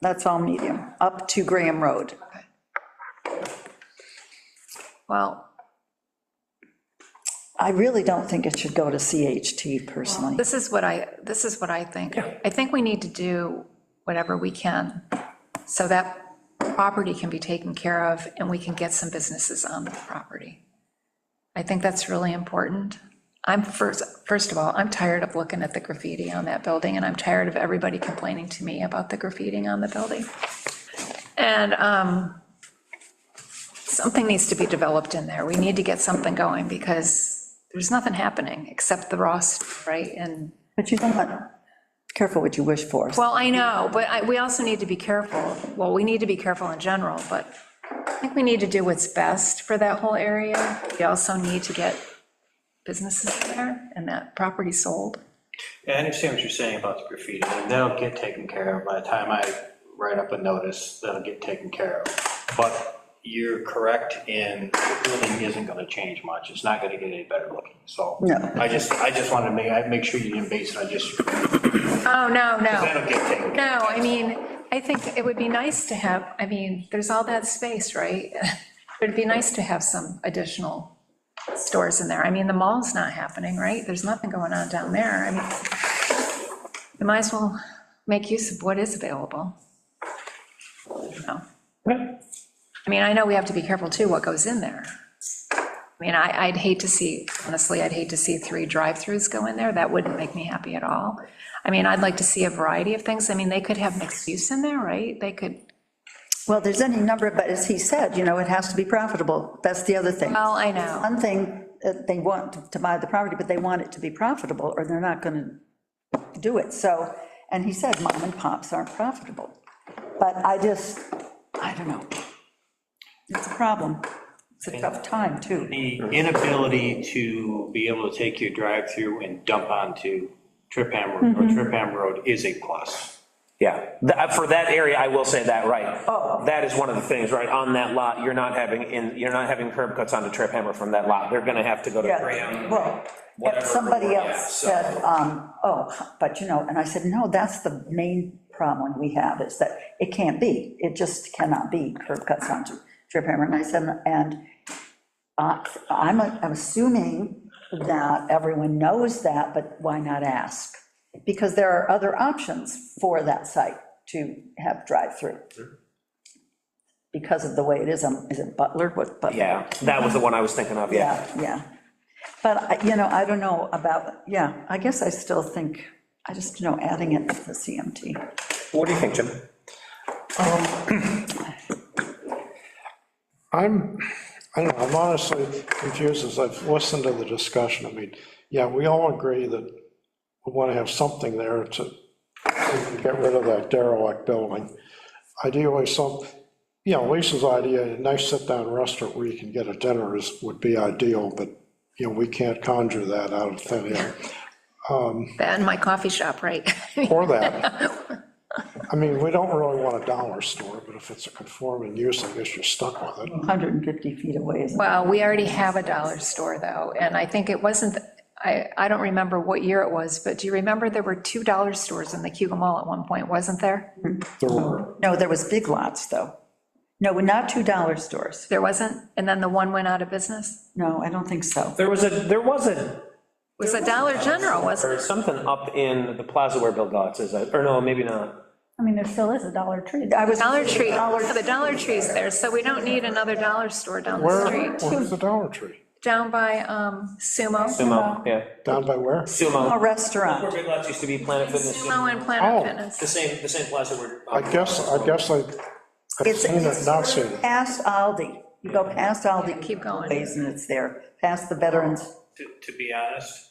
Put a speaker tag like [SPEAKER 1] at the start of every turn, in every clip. [SPEAKER 1] That's all medium, up to Graham Road.
[SPEAKER 2] Well,
[SPEAKER 1] I really don't think it should go to CHT personally.
[SPEAKER 2] this is what I, this is what I think. I think we need to do whatever we can, so that property can be taken care of, and we can get some businesses on the property. I think that's really important. I'm, first, first of all, I'm tired of looking at the graffiti on that building, and I'm tired of everybody complaining to me about the graffiti on the building. And um, something needs to be developed in there. We need to get something going, because there's nothing happening, except the raw, stuff, right? And
[SPEAKER 1] But you don't want, careful what you wish for.
[SPEAKER 2] well, I know, but I, we also need to be careful. Well, we need to be careful in general, but I think we need to do what's best for that whole area. We also need to get businesses there and that property sold.
[SPEAKER 3] Yeah, I understand what you're saying about the graffiti, and that'll get taken care of by the time I write up a notice, that'll get taken care of. But you're correct in, the building isn't gonna change much, it's not gonna get any better looking, so.
[SPEAKER 1] No.
[SPEAKER 3] I just, I just wanted to make, I make sure you didn't base it on just,
[SPEAKER 2] Oh, no, no.
[SPEAKER 3] that'll get taken care
[SPEAKER 2] No, I mean, I think it would be nice to have, I mean, there's all that space, right? It'd be nice to have some additional stores in there. I mean, the mall's not happening, right? There's nothing going on down there. I mean, we might as well make use of what is available. You know? I mean, I know we have to be careful too what goes in there. I mean, I, I'd hate to see, honestly, I'd hate to see three drive-throughs go in there. That wouldn't make me happy at all. I mean, I'd like to see a variety of things. I mean, they could have mixed use in there, right? They could,
[SPEAKER 1] Well, there's any number, but as he said, you know, it has to be profitable. That's the other thing.
[SPEAKER 2] well, I know.
[SPEAKER 1] One thing, uh, they want to buy the property, but they want it to be profitable, or they're not going to do it. So, and he said, mom and pops aren't profitable. But I just, I don't know. It's a problem. It's a tough time,
[SPEAKER 3] of.
[SPEAKER 1] too.
[SPEAKER 3] The inability to be able to take your drive-through and dump onto Trip Ham Road, or Trip Ham Road is a plus.
[SPEAKER 4] Yeah, Th- uh, for that area, I will say that, right. Oh. That is one of the things, right, on that lot, you're not having, in you're not having curb cuts onto Trip Hammer from that lot, they're gonna have to go to
[SPEAKER 1] Yeah,
[SPEAKER 4] Graham.
[SPEAKER 1] well,
[SPEAKER 4] Whatever,
[SPEAKER 1] but somebody
[SPEAKER 4] yeah,
[SPEAKER 1] else
[SPEAKER 4] so-
[SPEAKER 1] said, um, oh, but you know, and I said, no, that's the main problem we have, is that it can't be, it just cannot be curb cuts onto Trip Hammer, and I said, and uh, I'm, I'm assuming that everyone knows that, but why not ask? Because there are other options for that site to have drive-through. Because of the way it is, um, is it Butler, what, Butler?
[SPEAKER 4] Yeah, that was the one I was thinking of, yeah.
[SPEAKER 1] Yeah, yeah. But, I- you know, I don't know about, yeah, I guess I still think, I just, you know, adding it to the CMT.
[SPEAKER 4] What do you think, Jim?
[SPEAKER 5] I'm, I don't know, I'm honestly confused as I've listened to the discussion. I mean, yeah, we all agree that we want to have something there to get rid of that derelict building. Ideally, some, you know, Lisa's idea, a nice sit-down restaurant where you can get a dinner is, would be ideal, but, you know, we can't conjure that out of thin air.
[SPEAKER 2] That and my coffee shop, right?
[SPEAKER 5] Or that. I mean, we don't really want a dollar store, but if it's a conforming use, I guess you're stuck with it.
[SPEAKER 1] 150 feet away is,
[SPEAKER 2] Well, we already have a dollar store though, and I think it wasn't, I, I don't remember what year it was, but do you remember there were two dollar stores in the Cuba Mall at one point, wasn't there?
[SPEAKER 5] There were
[SPEAKER 1] no, there was Big Lots, though. No, not $2 stores.
[SPEAKER 2] There wasn't? And then the one went out of business?
[SPEAKER 1] No, I don't think so.
[SPEAKER 4] There was a, there was a,
[SPEAKER 2] It was a Dollar General, wasn't it?
[SPEAKER 4] or something up in the plaza where Bill Gotts is, uh, or no, maybe not.
[SPEAKER 6] I mean, there still is a Dollar Tree.
[SPEAKER 1] I was,
[SPEAKER 2] Dollar Tree, the Dollar Tree's there, so we don't need another dollar store down the
[SPEAKER 5] Where,
[SPEAKER 2] street.
[SPEAKER 5] where's the Dollar Tree?
[SPEAKER 2] Down by um, Sumo.
[SPEAKER 4] Sumo, yeah,
[SPEAKER 5] Down by where?
[SPEAKER 1] a
[SPEAKER 4] Sumo.
[SPEAKER 1] restaurant.
[SPEAKER 4] Where Big Lots used to be Planet Fitness.
[SPEAKER 2] Sumo and
[SPEAKER 5] Oh.
[SPEAKER 2] Planet Fitness.
[SPEAKER 4] The same, the same plaza where.
[SPEAKER 5] I guess, I guess I, I've
[SPEAKER 1] It's
[SPEAKER 5] seen it, not seen it.
[SPEAKER 1] past Aldi. You go past Aldi.
[SPEAKER 2] Keep going.
[SPEAKER 1] ways And it's there, past the Veterans.
[SPEAKER 3] To, to be honest,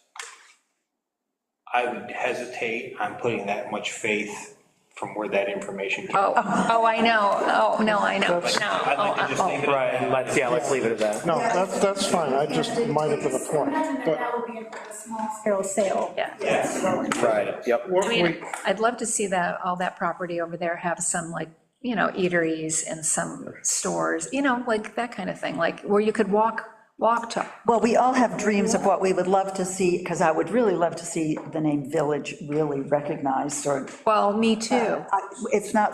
[SPEAKER 3] I would hesitate on putting that much faith from where that information came.
[SPEAKER 2] Oh, oh, I know, oh, no, I know, but no.
[SPEAKER 3] I'd like to
[SPEAKER 2] oh,
[SPEAKER 3] just leave it.
[SPEAKER 4] Right, let's, yeah, let's leave it at that.
[SPEAKER 5] No, that's, that's fine, I just, it might have been a point,
[SPEAKER 6] Imagine that
[SPEAKER 5] but
[SPEAKER 6] that would be a small scale sale.
[SPEAKER 2] Yeah.
[SPEAKER 4] Right, yep.
[SPEAKER 5] what
[SPEAKER 2] I
[SPEAKER 5] we,
[SPEAKER 2] mean, I'd love to see that, all that property over there have some like, you know, eateries and some stores, you know, like that kind of thing, like where you could walk, walk to.
[SPEAKER 1] Well, we all have dreams of what we would love to see, because I would really love to see the name Village really recognized, or,
[SPEAKER 2] Well, me too.
[SPEAKER 1] I- it's not